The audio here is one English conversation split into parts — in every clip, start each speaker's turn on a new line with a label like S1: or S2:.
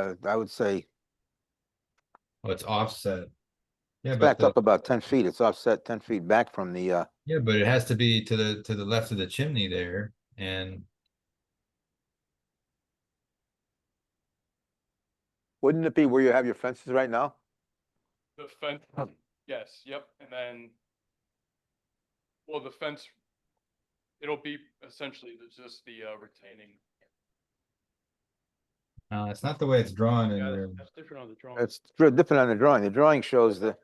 S1: uh, I would say
S2: Oh, it's offset. Yeah,
S1: it's
S2: but,
S1: back
S2: the-
S1: up about ten feet. It's offset ten feet back from the, uh,
S2: yeah, but it has to be to the, to the left of the chimney there and
S1: wouldn't it be where you have your fences right now?
S3: The fence, yes, yep, and then. Well, the fence. It'll be essentially the- just the uh, retaining.
S2: uh, it's not the way it's drawn
S3: Yeah,
S2: and
S3: that's- that's different on the drawing.
S1: It's dri- different on the drawing. The drawing shows the,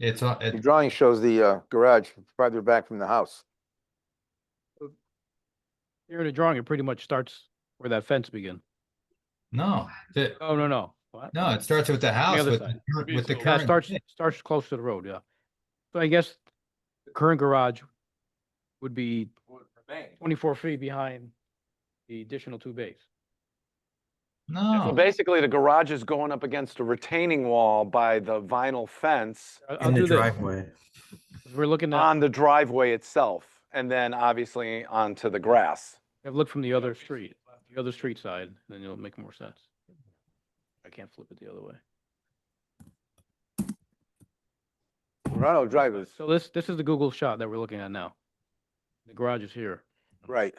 S2: it's, a-
S1: the
S2: it,
S1: drawing shows the, uh, garage farther back from the house.
S4: Here in the drawing, it pretty much starts where that fence begin.
S2: no, the-
S4: Oh, no, no. What?
S2: no, it starts with the house
S4: other
S2: with, the
S4: side.
S2: cur-
S3: Be
S2: with the
S3: so-
S4: Yeah,
S2: current.
S4: it starts,
S2: thing.
S4: starts close to the road, yeah. So I guess the current garage would be
S3: Would remain.
S4: twenty-four feet behind the additional two bays.
S5: So
S2: No,
S5: basically, the garage is going up against a retaining wall by the vinyl fence
S4: I- I'll
S6: in the
S4: do this,
S6: driveway.
S4: 'cause Uh, We're looking at,
S5: on the driveway itself, and then obviously onto the grass.
S4: I've looked from the other street, the other street side, then it'll make more sense. I can't flip it the other way.
S1: Ronald Drive is,
S4: So this, this is the Google shot that we're looking at now. The garage is here.
S1: right.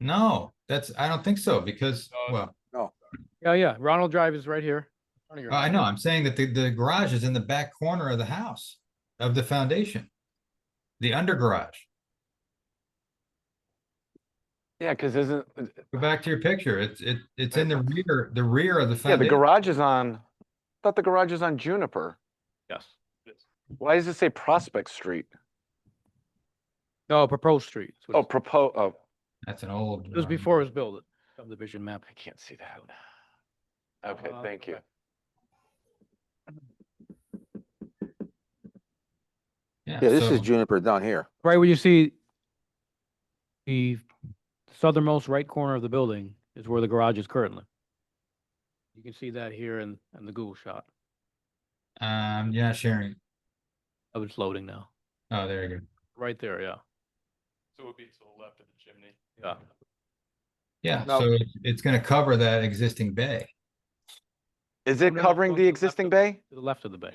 S2: no, that's, I don't think so because,
S3: No.
S2: well,
S4: Yeah, yeah, Ronald Drive is right here. in front of your
S2: I
S4: house.
S2: know, I'm saying that the, the garage is in the back corner of the house of the foundation. The under garage.
S5: Yeah, because isn't,
S2: Go back to your picture. It's, it, it's in the rear, the rear of the
S5: yeah, the
S2: foundation.
S5: garage is on, thought the garage is on Juniper.
S4: Yes.
S5: Why does it say Prospect Street?
S4: No, proposed street. is what
S5: Oh,
S4: it's-
S5: propos, oh,
S2: That's an old.
S4: It was
S2: drawing.
S4: before it was built, subdivision map.
S5: I can't see that. Okay,
S4: Uh,
S5: thank you.
S1: Yeah, this
S2: so-
S1: is Juniper down here.
S4: Right where you see the southernmost right corner of the building is where the garage is currently. You can see that here in, in the Google shot.
S2: Um, you're not sharing.
S4: Oh, it's loading now.
S2: Oh, there you go.
S4: Right there, yeah.
S3: So it would be to the left of the chimney.
S4: Yeah.
S2: Yeah,
S1: No.
S2: so it's- it's gonna cover that existing bay.
S5: Is
S4: Oh,
S5: it
S4: no, it's
S5: covering
S4: going to
S5: the
S4: left
S5: existing
S4: of-
S5: bay?
S4: To the left of the bay.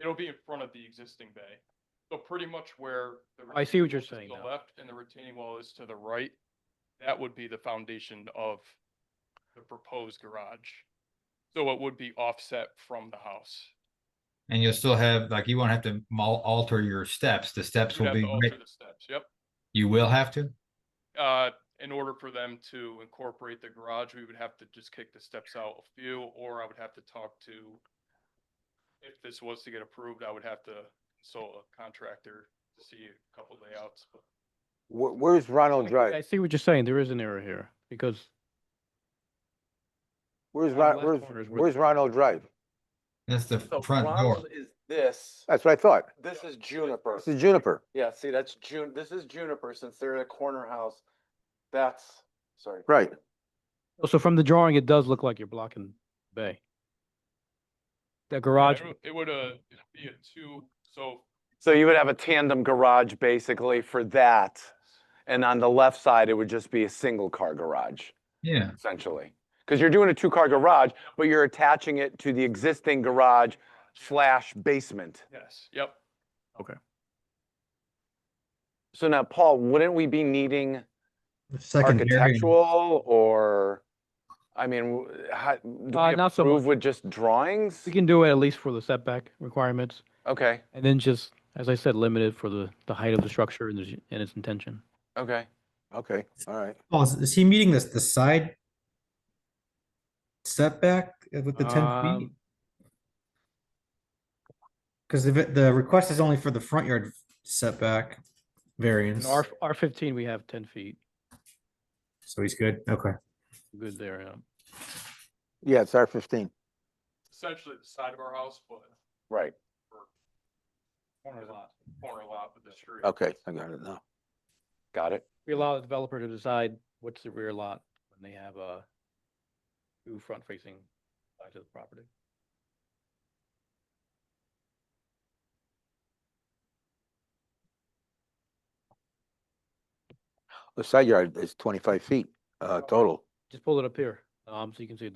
S3: It'll be in front of the existing bay. So pretty much where. the
S4: I see
S3: retaining
S4: what
S3: wall
S4: you're
S3: is
S4: saying
S3: To the
S4: now.
S3: left and the retaining wall is to the right. That would be the foundation of the proposed garage. So it would be offset from the house.
S2: And you'll still have, like, you won't have to mal- alter your steps. The steps
S3: You'd
S2: will
S3: have
S2: be,
S3: to alter
S2: right-
S3: the steps, yep.
S2: you will have to?
S3: Uh, in order for them to incorporate the garage, we would have to just kick the steps out a few, or I would have to talk to. If this was to get approved, I would have to consult a contractor to see a couple layouts, but
S1: Where, where's Ronald
S4: I
S1: Drive?
S4: see what you're saying. There is an error here because
S1: Where's,
S4: on the
S1: Ron-
S4: left
S1: where's,
S4: corner is where-
S1: where's Ronald Drive?
S2: That's the front door.
S5: is this,
S1: That's what I thought.
S5: this is Juniper.
S1: Uh, This is Juniper.
S5: Yeah, see, that's June, this is Juniper, since they're a corner house. That's, sorry.
S1: Right.
S4: so from the drawing, it does look like you're blocking the bay. The garage,
S3: it would- It would, uh, it'd be a two, so
S5: So you would have a tandem garage basically for that. And on the left side, it would just be a single car garage
S2: Yeah,
S5: essentially. Because you're doing a two car garage, but you're attaching it to the existing garage slash basement.
S3: yes, yep.
S5: So now, Paul, wouldn't we be needing
S6: The Second area.
S5: architectural or? I mean, w- how, do
S4: Uh,
S5: we
S4: not so
S5: approve
S4: much.
S5: with just drawings?
S4: we can do it at least for the setback requirements.
S5: Okay,
S4: And then just, as I said, limited for the, the height of the structure and, the- and its intention.
S5: okay.
S1: Okay, all right.
S6: Oh, is- is he meeting this, the side setback with the ten feet?
S4: Um,
S6: Because the, the request is only for the front yard setback
S4: In
S6: variance,
S4: R, R fifteen, we have ten feet,
S6: so he's good, okay.
S4: good there, yeah.
S1: Yeah, it's R fifteen.
S3: Essentially the side of our house, but
S5: Right.
S3: corner lot, corner lot with the street.
S1: Okay, I got it now.
S5: Got it.
S4: We allow the developer to decide what's the rear lot when they have, uh, two front-facing sides of the property.
S1: The side yard is uh, twenty-five feet, uh, total.
S4: Just pull it up here. Um, so you can see